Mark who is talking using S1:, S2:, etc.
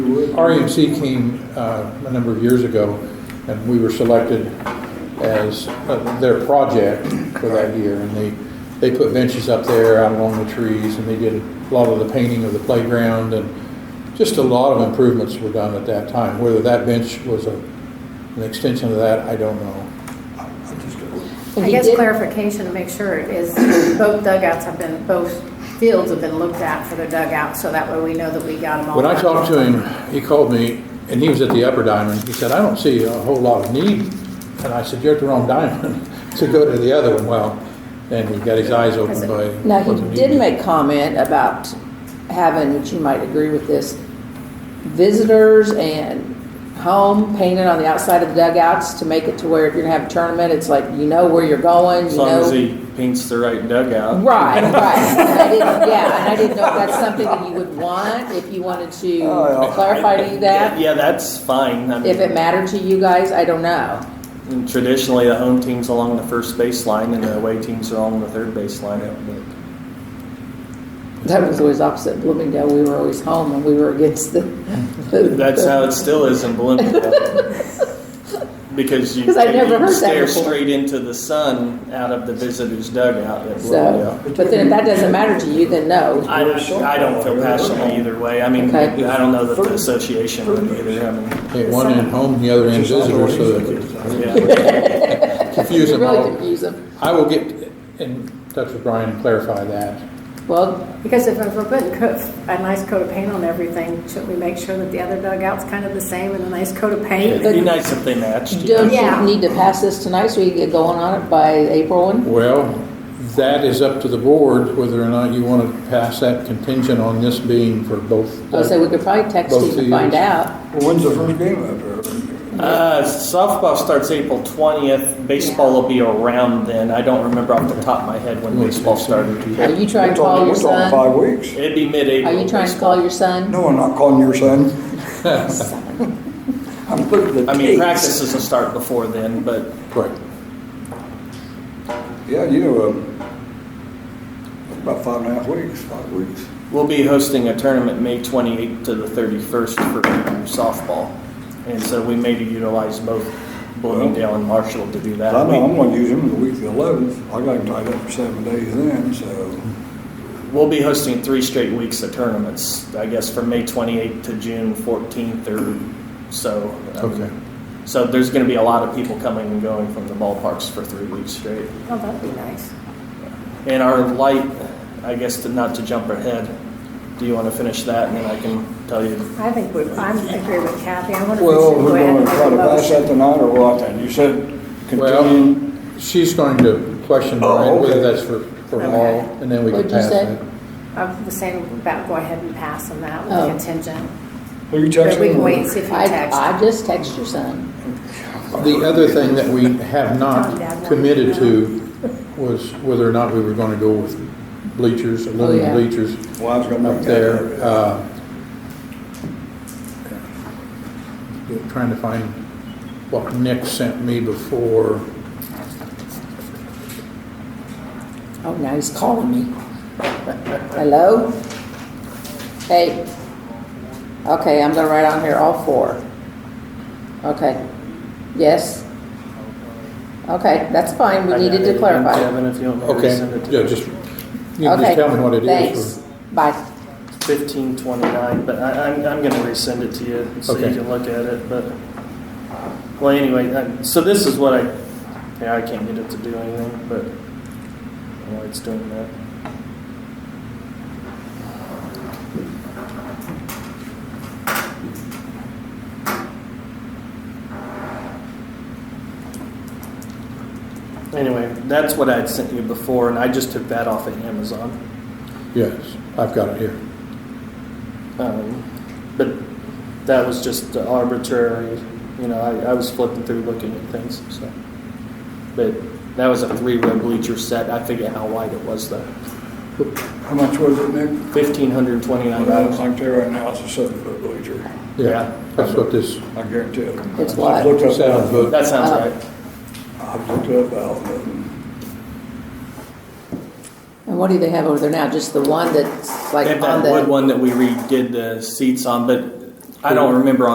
S1: REMC E came uh, a number of years ago, and we were selected as uh, their project for that year. And they, they put benches up there out along the trees, and they did a lot of the painting of the playground, and just a lot of improvements were done at that time. Whether that bench was a, an extension of that, I don't know.
S2: I
S3: He
S2: guess
S3: did-
S2: clarification to make sure is both dugouts have been, both fields have been looked at for their dugouts, so that way we know that we got them all.
S1: When I
S2: done.
S1: talked to him, he called me, and he was at the upper diamond. He said, I don't see a whole lot of need. And I said, you're at the wrong diamond to go to the other one. Well, then he got his eyes opened by.
S3: Now,
S1: what the
S3: he
S1: need
S3: did
S1: was.
S3: make comment about having, which you might agree with this, visitors and home painted on the outside of the dugouts to make it to where if you're gonna have a tournament, it's like, you know where you're going,
S4: As
S3: you
S4: long as
S3: know.
S4: he paints the right dugout.
S3: Right, right. And I didn't, yeah, and I didn't know if that's something that you would want, if you wanted to clarify to you that.
S4: Yeah, that's fine. I
S3: If it
S4: mean,
S3: mattered to you guys, I don't know.
S4: and traditionally, the home team's along the first baseline and the away teams are along the third baseline.
S3: That was always opposite Bloomingdale. We were always home and we were against the.
S4: But That's how it still is in Bloomingdale. Because you,
S3: 'Cause I've never
S4: you
S3: heard that
S4: stare
S3: before.
S4: straight into the sun out of the visitor's dugout at
S3: So,
S4: Bloomingdale.
S3: but then if that doesn't matter to you, then no.
S4: I, I don't feel passionate either way. I mean,
S3: Okay.
S4: I don't know that the association would either. I mean,
S1: Hey, one end home, the other end visitor, so that
S4: yeah.
S1: it confused
S3: You
S1: them
S3: really
S1: all.
S3: confuse them.
S1: I will get in touch with Brian and clarify that.
S3: Well,
S2: Because if if we're putting coat, a nice coat of paint on everything, shouldn't we make sure that the other dugout's kind of the same and a nice coat of paint?
S4: It'd be nice if they matched. yeah.
S3: don't
S2: Yeah.
S3: you need to pass this tonight so you get going on it by April one?
S1: Well, that is up to the board whether or not you want to pass that contingent on this being for both.
S3: I would say we could probably text
S1: Both
S3: you
S1: of
S3: to find
S1: yous.
S3: out.
S5: Well, when's the first game up there?
S4: Uh, softball starts April twentieth. Baseball will be around then. I don't remember off the top of my head when baseball started.
S3: Are you trying
S5: We're
S3: to call
S5: talking-
S3: your
S5: we're
S3: son?
S5: talking five weeks.
S4: It'd be mid-April.
S3: Are you trying to call your son?
S5: No, I'm not calling your son. I'm looking at the
S4: I mean,
S5: dates.
S4: practices will start before then, but
S1: Right.
S5: Yeah, you know, um, about five and a half weeks, five weeks.
S4: we'll be hosting a tournament May twenty-eighth to the thirty-first for softball. And so we may utilize both Bloomingdale and Marshall to do
S5: I
S4: that.
S5: know I'm gonna use him the week of the eleventh. I got him tied up for seven days then, so.
S4: We'll be hosting three straight weeks of tournaments, I guess from May 28th to June 14th or so. Um,
S1: Okay.
S4: So there's going to be a lot of people coming and going from the ballparks for three weeks straight.
S2: Oh, that'd be nice.
S4: And our light, I guess to, not to jump ahead, do you want to finish that and then I can tell you?
S2: I think we, I'm agree with Kathy. I wonder if we
S5: Well,
S2: should
S5: we're
S2: go ahead
S5: gonna
S2: and make
S5: try
S2: a
S5: to pass
S2: motion.
S5: that tonight or what then? You said
S1: Well,
S5: continue.
S1: she's going to question
S5: Oh,
S1: Brian whether
S5: okay.
S1: that's for, for all, and then we can
S3: What'd you
S1: pass
S3: say?
S1: it.
S2: I'm the same about go ahead and pass on that with
S3: Oh.
S2: contingent.
S5: Are you
S2: But
S5: texting?
S2: we
S5: him
S2: can
S5: or-
S2: wait and see if he texts.
S3: I, I just text your son.
S1: The other thing that we have not committed to was whether or not we were going to go with bleachers, aluminum
S3: Oh, yeah.
S1: bleachers
S5: Well, I was gonna
S1: up
S5: make
S1: there.
S5: that. up.
S1: Uh, Trying to find what Nick sent me before.
S3: Oh, now he's calling me. Hello? Hey. Okay, I'm gonna write on here all four. Okay. Yes? Okay, that's fine. We needed to clarify.
S4: Kevin, if you want me to
S1: Okay,
S4: send it to
S1: yeah,
S4: you.
S1: just, you can
S3: Okay,
S1: just tell me what it is.
S3: Thanks. Bye.
S4: 1529, but I, I'm, I'm going to resend it to you so
S1: Okay.
S4: you can look at it. But well, anyway, I, so this is what I yeah I can't get it to do anything, but I don't know why it's doing that. Anyway, that's what I had sent you before, and I just took that off of Amazon.
S1: Yes, I've got it here.
S4: Um, but that was just arbitrary, you know, I, I was flipping through looking at things, so. But that was a three row bleacher set. I forget how wide it was though.
S5: How much was it, Nick?
S4: Fifteen hundred twenty nine
S5: I don't
S4: dollars.
S5: think there right now, it's a seven foot bleacher.
S4: Yeah.
S1: Yeah, that's what this,
S5: I guarantee it.
S3: It's what?
S5: I've looked up
S1: Seven
S5: that,
S1: foot.
S4: That sounds right.
S5: I've looked up um, that, and
S3: And what do they have over there now? Just the one that's
S4: They
S3: like
S4: have
S3: on
S4: that wood
S3: the,
S4: one that we redid the seats on, but
S6: I don't remember on